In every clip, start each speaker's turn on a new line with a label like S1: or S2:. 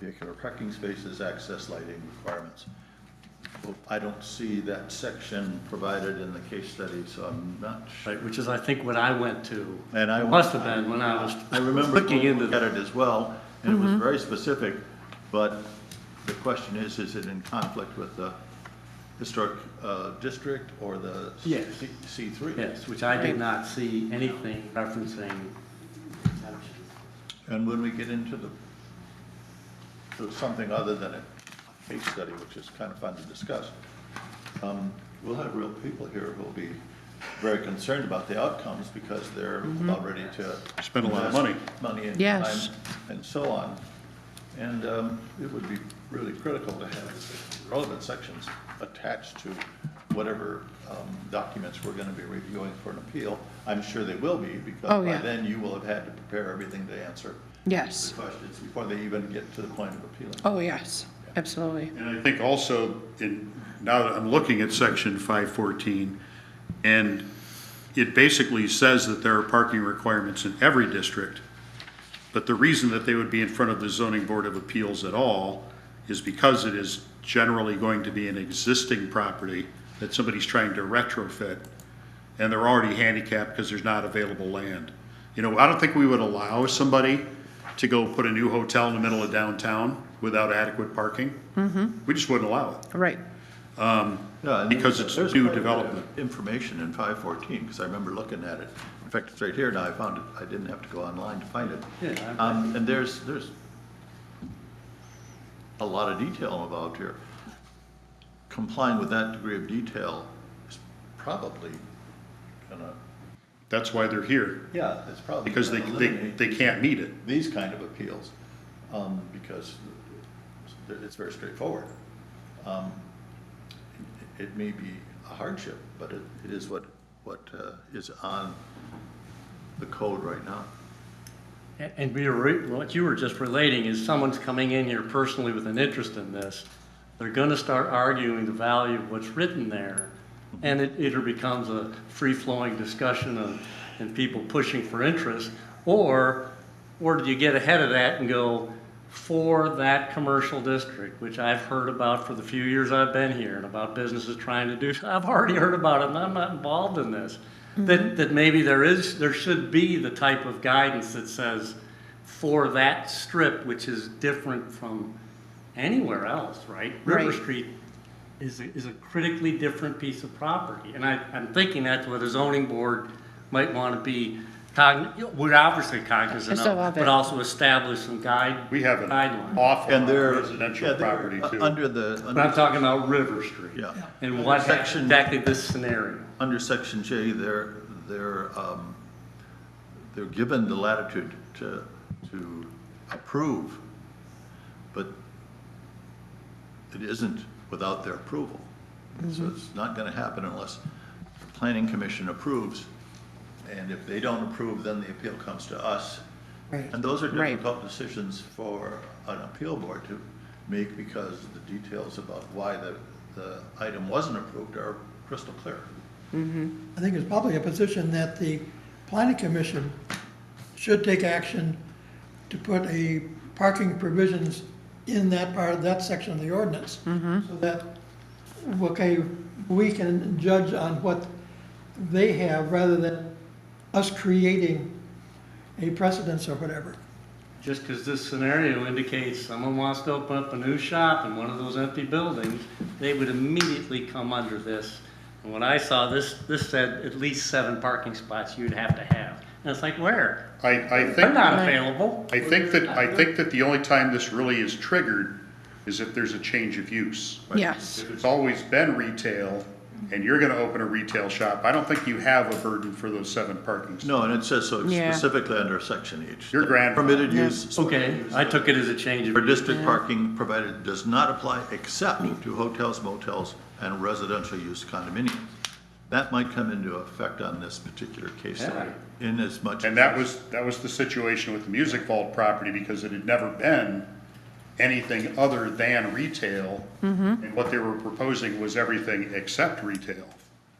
S1: vehicular parking spaces, access lighting requirements. Well, I don't see that section provided in the case study, so I'm not sure.
S2: Right, which is, I think, what I went to.
S1: And I-
S2: Must have been when I was
S1: I remember
S2: looking
S1: looking
S2: into Mm-hmm.
S1: at
S2: that.
S1: it as well, and it was very specific, but the question is, is it in conflict with the historic uh, district or the
S2: Yes.
S1: C three?
S2: Yes, which I did not see anything referencing exemption.
S1: And when we get into the, to something other than a case study, which is kind of fun to discuss, um, we'll have real people here who'll be very concerned about the outcomes because they're about ready to.
S3: Spend a lot of money.
S1: invest Money and
S4: Yes.
S1: time and so on. And um, it would be really critical to have relevant sections attached to whatever um, documents we're going to be reviewing for an appeal. I'm sure they will be
S4: Oh,
S1: because by
S4: yeah.
S1: then you will have had to prepare everything to answer the
S4: Yes.
S1: questions before they even get to the point of appealing.
S4: Oh, yes, absolutely.
S3: And I think also, in, now that I'm looking at section five fourteen, and it basically says that there are parking requirements in every district, but the reason that they would be in front of the zoning board of appeals at all is because it is generally going to be an existing property that somebody's trying to retrofit, and they're already handicapped because there's not available land. You know, I don't think we would allow somebody to go put a new hotel in the middle of downtown without adequate parking. We just wouldn't allow it.
S4: Right.
S1: Yeah, and
S3: Because
S1: there's-
S3: it's
S1: there's
S3: new
S1: quite a bit of
S3: development.
S1: Information in five fourteen, because I remember looking at it. In fact, it's right here, and I found it, I didn't have to go online to find it.
S2: Yeah, I-
S1: Um, and there's, there's a lot of detail involved here. Complying with that degree of detail is probably gonna,
S3: That's why they're here,
S1: yeah, it's probably
S3: because they,
S1: gonna
S3: they,
S1: eliminate
S3: they can't meet it.
S1: these kind of appeals, um, because it's very straightforward. Um, It it may be a hardship, but it, it is what, what uh, is on the code right now.
S2: And- And we were, what you were just relating is someone's coming in here personally with an interest in this. They're gonna start arguing the value of what's written there. And it either becomes a free-flowing discussion of, and people pushing for interest, or, or do you get ahead of that and go, for that commercial district, which I've heard about for the few years I've been here, and about businesses trying to do, I've already heard about it, and I'm not involved in this. That, that maybe there is, there should be the type of guidance that says, for that strip, which is different from anywhere else, right? River
S4: Right.
S2: Street is, a- is a critically different piece of property. And I, I'm thinking that's what the zoning board might want to be cognizant, we're obviously cognizant
S4: It's a
S2: of,
S4: lot of-
S2: but also establish some guide.
S3: We have an
S2: Guideline.
S3: awful
S1: And
S3: lot
S1: they're.
S3: of residential
S1: yeah, they're
S3: property
S1: u-
S3: too.
S1: Under the,
S2: But I'm
S1: under-
S2: talking about River Street.
S1: yeah.
S2: And what hap-
S1: Section-
S2: exactly this scenario.
S1: Under section J, they're, they're, um, they're given the latitude to, to approve, but it isn't without their approval. So it's not gonna happen unless the planning commission approves, and if they don't approve, then the appeal comes to us.
S4: Right.
S1: And those are
S4: Right.
S1: difficult decisions for an appeal board to make because the details about why the, the item wasn't approved are crystal clear.
S5: I think it's probably a position that the planning commission should take action to put a parking provisions in that part, that section of the ordinance. So that, okay, we can judge on what they have rather than us creating a precedence or whatever.
S2: Just because this scenario indicates someone wants to open up a new shop in one of those empty buildings, they would immediately come under this. And when I saw this, this said at least seven parking spots you'd have to have. And it's like, where?
S3: I, I think.
S2: They're not available.
S3: I think that, I think that the only time this really is triggered is if there's a change of use.
S4: Yes,
S3: If it's always been retail, and you're gonna open a retail shop, I don't think you have a burden for those seven parking spaces.
S1: No, and it says so
S4: Yeah.
S1: specifically under section H.
S3: Your grandfather-
S1: Permitted use
S2: Okay, I took it as a change
S1: for
S2: of,
S1: district parking provided does not apply except to hotels, motels, and residential use condominiums. That might come into effect on this particular case study in as much.
S3: And that was, that was the situation with the Music Vault property, because it had never been anything other than retail. And what they were proposing was everything except retail.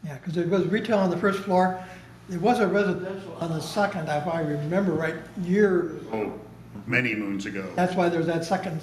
S5: Yeah, because there was retail on the first floor, there was a residential on the second, if I remember right, year,
S3: Oh, many moons ago.
S5: that's why there's that second